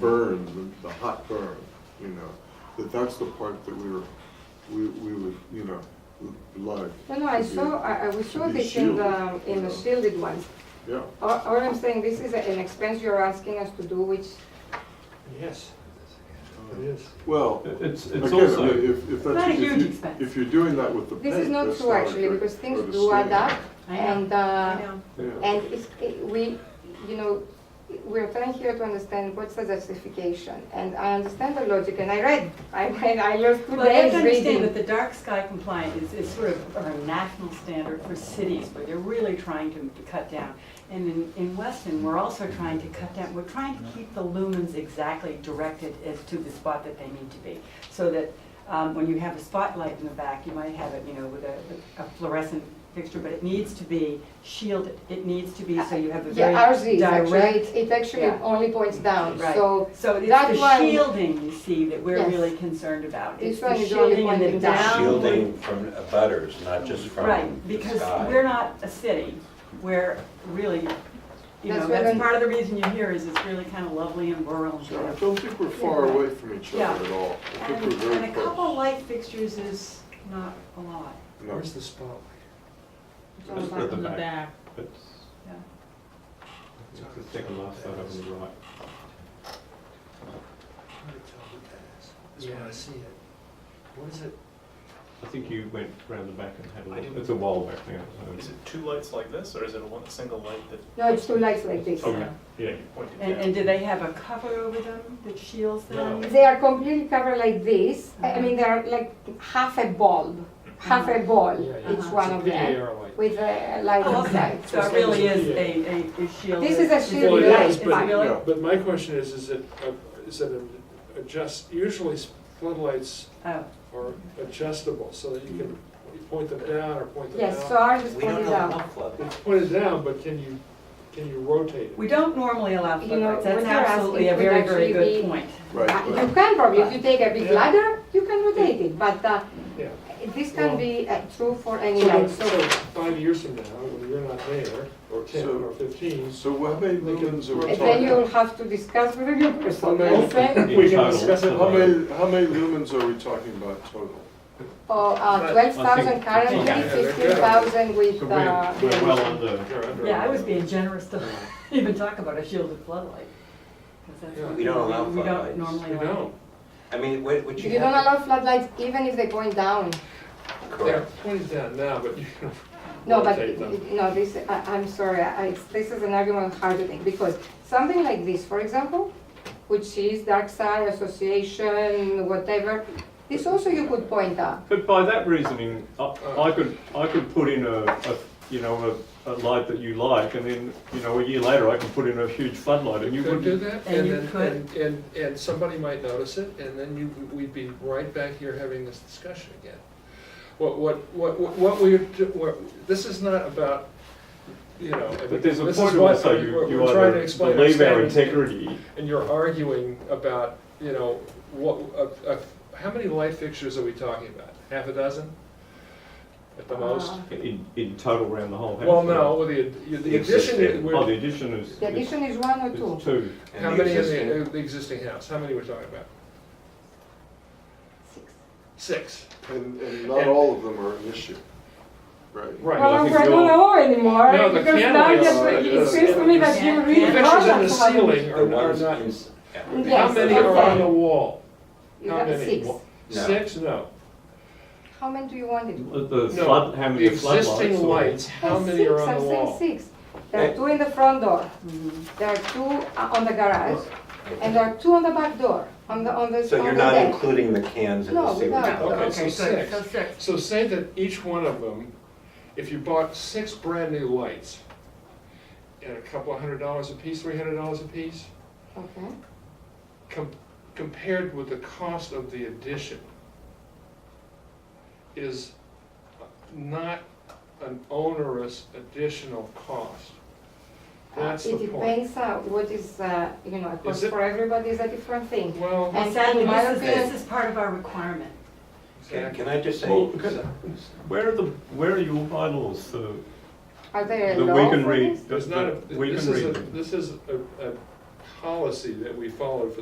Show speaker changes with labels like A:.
A: burn, the- the hot burn, you know, that that's the part that we were, we, we would, you know, like.
B: No, no, I
A: to be-
B: saw, I, I we saw
A: be
B: this in the,
A: shielded,
B: um, in the
A: yeah.
B: shielded ones.
A: Yeah,
B: All, all I'm saying, this is an expense you're asking us to do, which,
C: Yes,
A: Oh.
C: it is.
A: well,
D: It's, it's
A: again,
D: also,
A: if, if that's.
E: Not a
A: if
E: huge
A: you-
E: expense.
A: If you're doing that with the paint.
B: this is not
A: that's
B: true actually,
A: a great-
B: because things
A: or the
B: do add
A: stain.
B: up. And,
E: I
B: uh,
E: know.
A: Yeah.
B: and it's, it- we, you know, we're trying here to understand what's the justification. And I understand the logic, and I read, I read, I learned two
E: Well, you have
B: days
E: to understand that
B: reading.
E: the dark sky compliant is, is sort of our national standard for cities, where they're really trying to, to cut down. And in, in Weston, we're also trying to cut down, we're trying to keep the lumens exactly directed as to the spot that they need to be. So that, um, when you have a spotlight in the back, you might have it, you know, with a, a fluorescent fixture, but it needs to be shielded. It needs to be, so you have a very
B: Uh, Yeah, ours is actually,
E: direct
B: it- it actually
E: Yeah.
B: only points down,
E: Right.
B: so
E: So it's
B: That
E: the
B: one-
E: shielding, you see, that we're
B: Yes.
E: really concerned about.
B: This
E: It's the
B: one is only
E: shielding and the
B: pointing down.
E: downward-
B: Um,
F: Shielding from abutters, not just from the sky.
E: Right, because we're not a city, we're really, you know,
B: That's what I'm-
E: that's part of the reason you're here is it's really kind of lovely and rural and
A: So I
E: beautiful.
A: don't think we're far away from each other at all. I think
E: And,
A: we're very
E: and a couple
A: close.
E: light fixtures is not a lot.
A: No.
C: Where's the spotlight?
B: it's all
D: it's
B: about
D: at the back,
G: back.
D: but
E: Yeah.
D: you can take a last out of the right.
C: Hard to tell what that is. That's why I see it. What is it?
D: I think you went round the back and had a
H: I
D: look,
H: didn't-
D: it's a wall back there.
H: Is it two lights like this, or is it one single light that
B: No, it's two lights like this.
D: Okay, Oh, yeah,
H: you pointed
E: And,
H: down?
E: and do they have a cover over them that shields them?
H: No.
B: They are completely covered like this. I I mean, they are like half a bulb, half a ball.
C: Mm-hmm. Yeah, yeah.
B: Each one
C: It's a
B: of
C: big
B: them
C: arrow light.
B: with a light
E: Oh, okay,
B: inside.
E: so it really is a, a, a shielded.
B: This is a
C: Well,
B: shielded
C: it
B: light.
C: is, but,
B: bulb.
A: Yeah.
C: but my question is, is it, uh, is it an adjust, usually s- floodlights
E: Oh,
C: are adjustable so that you can point them down or point them down.
B: Yes, so ours is
F: We don't
B: pointed
F: know
B: out.
F: how flood.
C: It's pointed down, but can you, can you rotate it?
E: we don't normally allow
B: You know,
E: floodlights, that's
B: when you're asking,
E: absolutely
B: it
E: a
B: would
E: very, very
B: actually
E: good
B: be-
E: point.
B: Uh,
A: Right,
B: You can probably, if you take a big
C: Yeah.
B: ladder, you can rotate it, but uh,
C: Yeah.
B: this can
C: Well-
B: be uh, true for any
C: So
B: light.
C: then-
B: So
C: so five years from now, when you're not there, or ten
A: So-
C: or fifteen,
A: so how many lumens are we
B: and
A: talking?
B: then you'll have to discuss with the new person.
A: Okay.
B: let's say.
C: we can discuss it.
A: How many, how many lumens are we talking about total?
B: Or uh, 12,000 currently,
D: Yeah.
B: 15,000 with
D: So
B: uh,
D: we're, we're well under,
C: you're under.
E: Yeah, I was being generous to even talk about a shielded floodlight. 'cause that's
C: Yeah.
E: what
F: We don't allow
E: We
F: floodlights.
E: don't normally.
C: You
E: allow.
C: know,
F: I mean, what, what you
B: You don't
F: have.
B: allow floodlights even if they point down.
C: they're
F: Correct.
C: pointed down now, but you can
B: No, but,
C: rotate them.
B: no, this, I, I'm sorry, I, it's- this is an argument hard to make, because something like this, for example, which is dark side association, whatever, this also you could point out.
D: but by that reasoning, I, I
C: Uh.
D: could, I could put in a, a, you know, a, a light that you like, and then, you know, a year later, I can put in a huge floodlight, and you
C: You could do
D: wouldn't.
C: that,
E: And
C: and
E: you
C: then,
E: could.
C: and, and, and somebody might notice it, and then you, we'd be right back here having this discussion again. What, what, what, what- what we're, do- what, this is not about, you know, I mean,
D: But
C: this
D: there's
C: is
D: a
C: what
D: point where I say
C: we're
D: you, you
C: we're trying to
D: either
C: explain.
D: believe our
C: standards,
D: integrity,
C: And you're arguing about, you know, what, uh, uh, how many light fixtures are we talking about? Half a dozen? At
E: Uh,
C: the most?
D: in, in total around the whole house.
C: Well, no, with the, the addition,
F: Existing.
C: we're-
D: Oh, the addition is,
B: The
D: is
B: addition is one or two.
D: is two.
F: And
C: How
F: the
C: many in
F: existing-
C: the, uh, the existing house, how many we're talking about? Six.
A: And, and not all of them are an issue, right?
C: Right.
D: Well, I
B: Well,
D: think
B: we're
D: we all-
B: not know anymore,
C: No, the
B: because now
C: candles
B: you're-
A: are-
B: it seems to me that you
E: Yeah.
C: The
B: read
C: Pictures in the
B: products about-
C: ceiling
F: The
C: are are
F: ones
C: not,
F: ins- yeah.
C: how
B: Yes,
C: many are on
B: okay.
C: the wall?
B: You
C: How
B: got
C: many?
B: six.
C: What?
F: No.
C: Six, no.
B: How many do you want it?
D: The
C: No,
D: flood, how many
C: The
D: floodlights?
C: existing
D: or-
C: lights, how
B: Well,
C: many are
B: six,
C: on the
B: I'm saying
C: wall? Mm-hmm.
B: Six. There are two in the front door, there are two uh, on the garage, and there are two on the back door, on the, on the,
F: So you're
B: on the
F: not
B: deck.
F: including the cans in
B: No,
F: the sewer.
B: without.
C: Okay, so
E: good.
C: six.
E: So six.
C: So say that each one of them, if you bought six brand new lights at a couple of hundred dollars a piece, three hundred dollars a piece,
B: Okay.
C: com- compared with the cost of the addition is not an onerous additional cost. That's the
B: Uh, It
C: point.
B: depends on what is, uh, you know, a cost
C: it-
B: for everybody is a different thing.
C: Well,
B: And
E: And sadly,
B: in my
E: this is,
B: opinion-
E: this is part of our requirement.
F: Can
C: exactly.
F: can I just say?
D: Well, can- Where are the, where are your bylaws for,
B: Are there
D: that
B: a
D: we
B: law
D: can
B: for
D: read?
B: this?
C: There's
D: that-
C: not a,
D: that We
C: this
D: can
C: is
D: read
C: a,
D: them?
C: this is a, a policy that we followed for